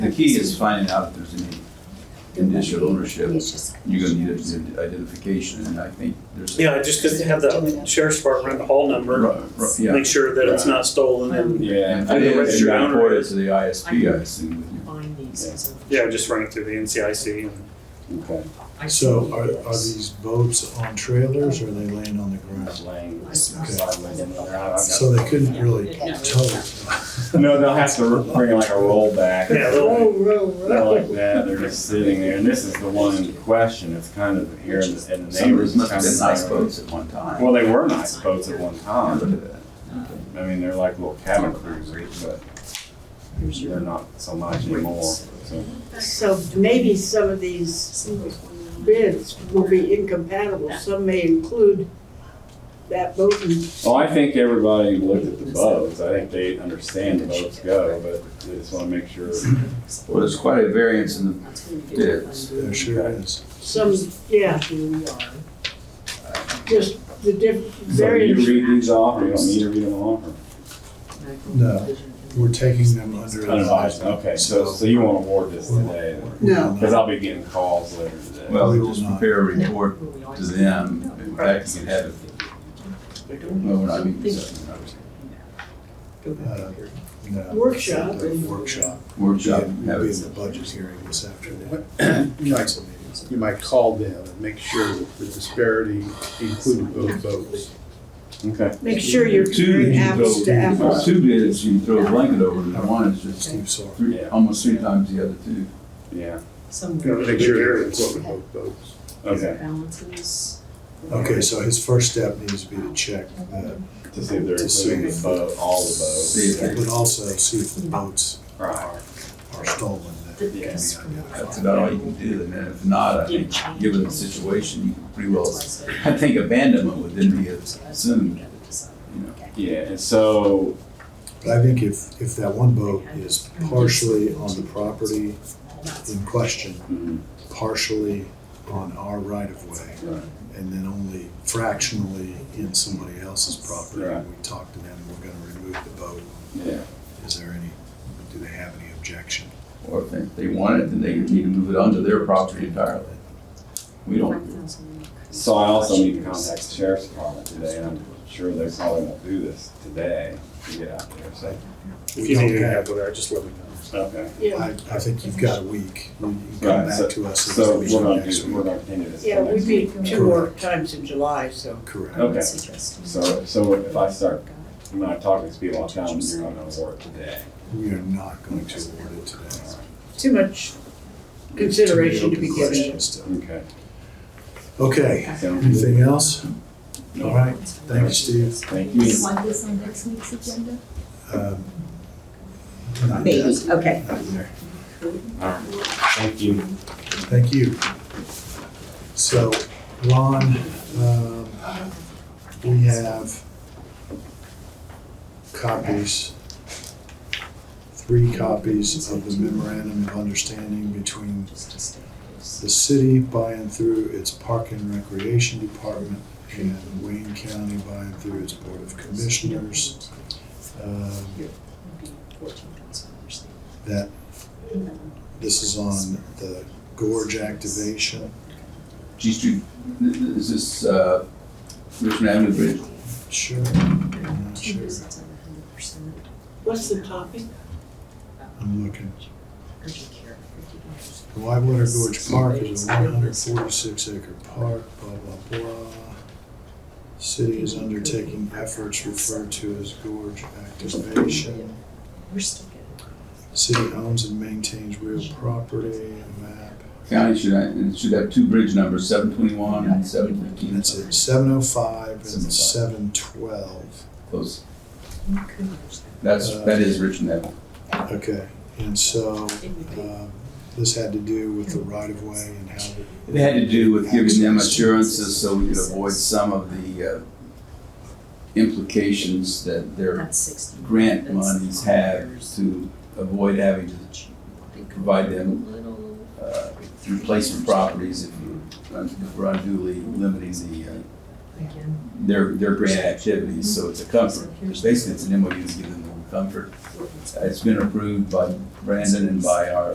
the key is finding out if there's any initial ownership. It's just. You're gonna need ident- identification, and I think there's. Yeah, just because to have the sheriff's department the hall number, Ru- ru- Yeah. make sure that it's not stolen and, Yeah, and I think then you registered owner report it is- to the ISP, I assume, with you. Find these as a- yeah, just run it through the NCIC. and- Okay. I So see are, are this. these boats on trailers or are they laying on the ground? laying I see this. side with them, they're out. I've So they couldn't really Yeah, no. tow. got- No, they'll have to bring like a roll back. Yeah, they'll- Oh, They're like that, they're just sitting there, and this is the one in question, it's kind of here in the, in the Some of those neighbors. must have kind been of nice like- boats at one time. Well, they were nice boats at one Yeah, Look time, at that. I mean, they're like little cabin cruisers, but they're not so much anymore, so. So maybe some of these bids will be incompatible. Some may include that boat and Well, I think everybody looked at the boats, I think they understand the boats go, but they just wanna make sure. Well, there's quite a variance in the That's gonna be Yes. There sure is. some, yeah, Here we are. just the diff, So do you various. read these off, or you don't need to read them off? or- No, we're taking them under Unadvised, okay, so, so you won't award this today, then? No. Cause I'll be getting calls later today. Well, We we will just not. prepare a report to them, in fact, you can have it, no, we're not meeting seven hours. Uh, no. Workshop. The Workshop. Workshop, We'll be have in it, the budget hearing this afternoon. You might, Council meetings. you might call them and make sure that the disparity included both votes. Okay. Make sure you're two, comparing you apples to throw, apples. two bids, you throw a blanket over, and one is just Steve Sorrell. three, almost three times the other two. Yeah. Somewhere. Make sure they're included both votes. Okay. Balances. Okay, so his first step needs to be to check that, To see if they're To see including the if- boat, all the boats. See if they- but also see if the boats Right. are stolen. That that can be goes from the- identified. That's about all you can do, and then if not, I think, given the situation, you can pretty well, That's why I said- I think abandonment would then be assumed, Gotta decide. you know. Yeah, and so, But I think if, if that one boat is partially on the property in question, mm, partially on our right of way, right, and then only fractionally in somebody else's property, Right. we talked to them, we're gonna remove the boat. yeah, Is there any, do they have any objection? Or if they- if they want it, then they need to move it onto their property entirely. We don't, 5,000. so I also need to contact the sheriff's department today, and I'm sure they probably won't do this today to get out there, so. If you need Okay. to have whatever, just let me know. Okay, I, Yeah, I think you've got a week, you can come Right, back to us. and so we we're can gonna next do, we're week. gonna continue this. yeah, till we next week. meet two more times in July, so. Correct, Okay, Suggesting. so, so if I start, when I talk to these people, I'll tell them you're gonna award it today. we are not going to award it today. Too much consideration to Open be given. questions still. Okay. Okay, Sounds good. anything else? All right, thank you, Steve. Thank Do you. you want this on next week's agenda? Um, not Maybe, yet, okay. not there. All right, thank you. Thank you. So, Ron, um, we have copies, three copies of the memorandum of understanding between Just to stay close. the city by and through its Park and Recreation Department and Wayne County by and through its Board of Commissioners, um, Maybe 14,000 dollars. that this is on the gorge activation. G Street, th- th- is this, uh, Richmond Avenue Bridge? Sure, I'm not Two sure, years, it's at 100%. What's the topic? I'm looking. Urgent care, $50. The Whitewater Gorge Park is a one hundred forty-six acre park, blah, blah, blah. City is undertaking efforts referred to as gorge activation. We're still good. City owns and maintains real property and map. County should, ha- it should have two bridge numbers, seven twenty-one and seven And fifteen, that's it, seven oh five and seven twelve. close, We could merge them. that's, that is Richmond Avenue. Okay, and so, It would Uh, be- um, this had to do with the right of way and how the It had to do with giving them assurances so we could avoid some of the, uh, implications that their That's sixty. grant monies have to avoid having to provide them uh, replacement properties if you- if we're unduly limiting the, uh, Again, their, their grant activities, so it's a comfort. Basically, it's an MOU to give them a little comfort. It's been approved by Brandon and by our